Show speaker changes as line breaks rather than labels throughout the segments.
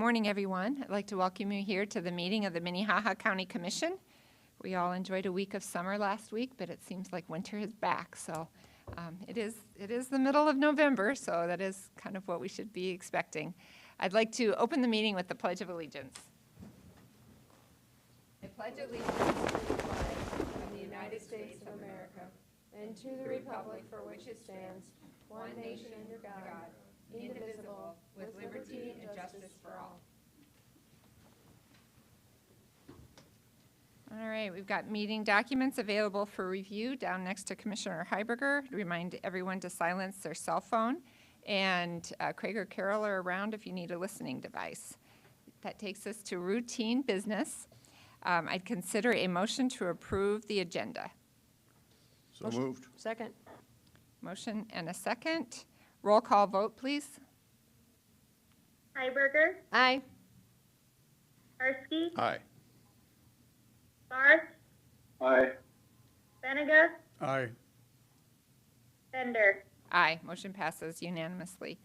Morning, everyone. I'd like to welcome you here to the meeting of the Minnehaha County Commission. We all enjoyed a week of summer last week, but it seems like winter is back, so um, it is, it is the middle of November, so that is kind of what we should be expecting. I'd like to open the meeting with the Pledge of Allegiance. I pledge allegiance All right, we've got meeting documents available for review down next to Commissioner Heiberger. Remind everyone to silence their cell phone. And uh, Craig or Carol are around if you need a listening device. That takes us to routine business. Um, I'd consider a motion to approve the agenda.
So moved.
Second.
Motion and a second. Roll call vote, please.
Hiberger,
Aye.
Karski,
Aye.
Barth,
Aye.
Benega,
Aye.
Bender.
Aye, motion passes unanimously.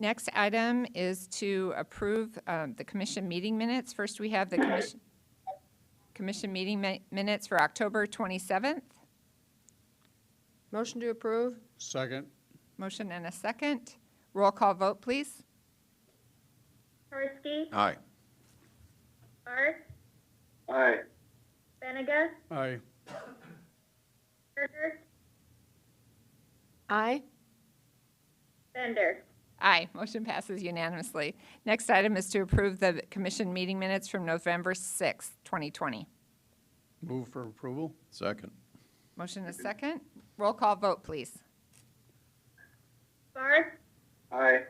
Next item is to approve um, the commission meeting minutes. First, we have the commission, commission meeting mi- minutes for October 27th.
Motion to approve?
Second.
Motion and a second. Roll call vote, please.
Karski,
Aye.
Barth,
Aye.
Benega,
Aye.
Berger,
Aye.
Bender.
Aye, motion passes unanimously. Next item is to approve the commission meeting minutes from November 6th, 2020.
Move for approval? Second.
Motion and a second. Roll call vote, please.
Barth,
Aye.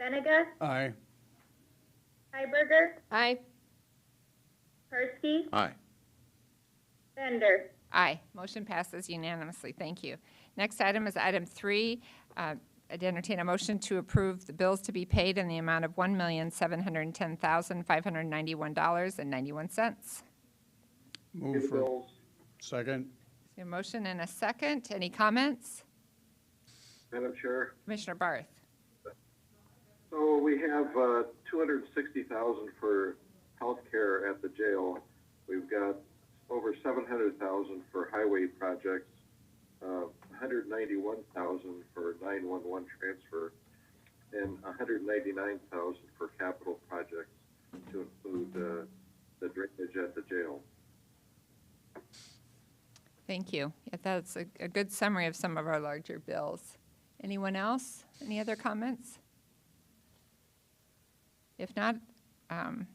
Benega,
Aye.
Hiberger,
Aye.
Karski,
Aye.
Bender.
Aye. Motion passes unanimously. Thank you. Next item is item three. Uh, I'd entertain a motion to approve the bills to be paid in the amount of $1,710,591.91. Is
Move for. Second.
there a motion and a second? Any comments?
Madam Chair,
Commissioner Barth?
so we have, uh, two hundred and sixty thousand for healthcare at the jail. We've got over seven hundred thousand for highway projects, uh, hundred ninety-one thousand for nine-one-one transfer, and hundred ninety-nine thousand for capital projects to include, uh, the drainage at the jail.
Thank you. Yeah, That's a a good summary of some of our larger bills. Anyone else? Any other comments? If not, um,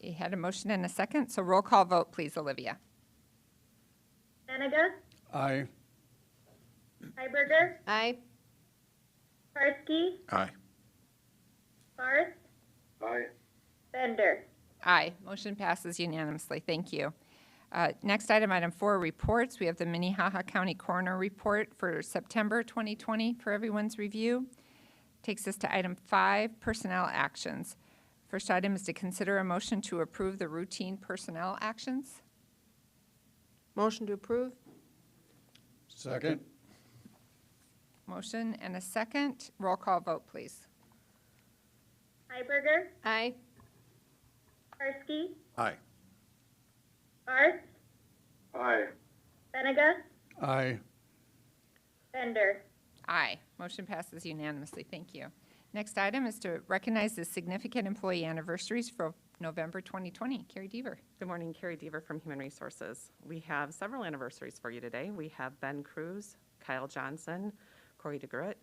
you had a motion and a second, so roll call vote, please, Olivia.
Benega,
Aye.
Hiberger,
Aye.
Karski,
Aye.
Barth,
Aye.
Bender.
Aye, motion passes unanimously. Thank you. Uh, Next item, item four, reports. We have the Minnehaha County Coroner Report for September 2020 for everyone's review. Takes us to item five, personnel actions. First item is to consider a motion to approve the routine personnel actions.
Motion to approve?
Second.
Motion and a second. Roll call vote, please.
Hiberger,
Aye.
Karski,
Aye.
Barth,
Aye.
Benega,
Aye.
Bender.
Aye, motion passes unanimously. Thank you. Next item is to recognize the significant employee anniversaries for November 2020. Carrie Deaver.
Good morning, Carrie Deaver from Human Resources. We have several anniversaries for you today. We have Ben Cruz, Kyle Johnson, Corey DeGroot,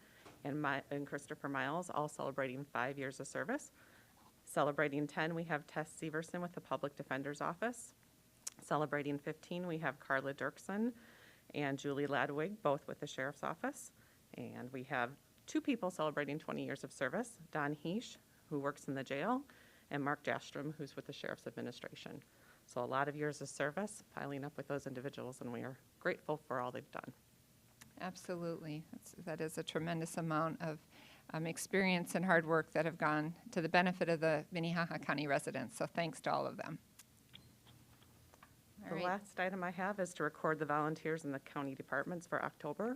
and my, and Christopher Miles, all celebrating five years of service. Celebrating 10, we have Tess Severson with the Public Defender's Office. Celebrating 15, we have Carla Dirksen and Julie Ladwig, both with the Sheriff's Office. And we have two people celebrating 20 years of service, Don Heesh, who works in the jail, and Mark Jastrom, who's with the Sheriff's Administration. So a lot of years of service piling up with those individuals, and we are grateful for all they've done.
Absolutely. That's, that is a tremendous amount of um, experience and hard work that have gone to the benefit of the Minnehaha County residents. So thanks to all of them. All
The
right.
last item I have is to record the volunteers in the county departments for October.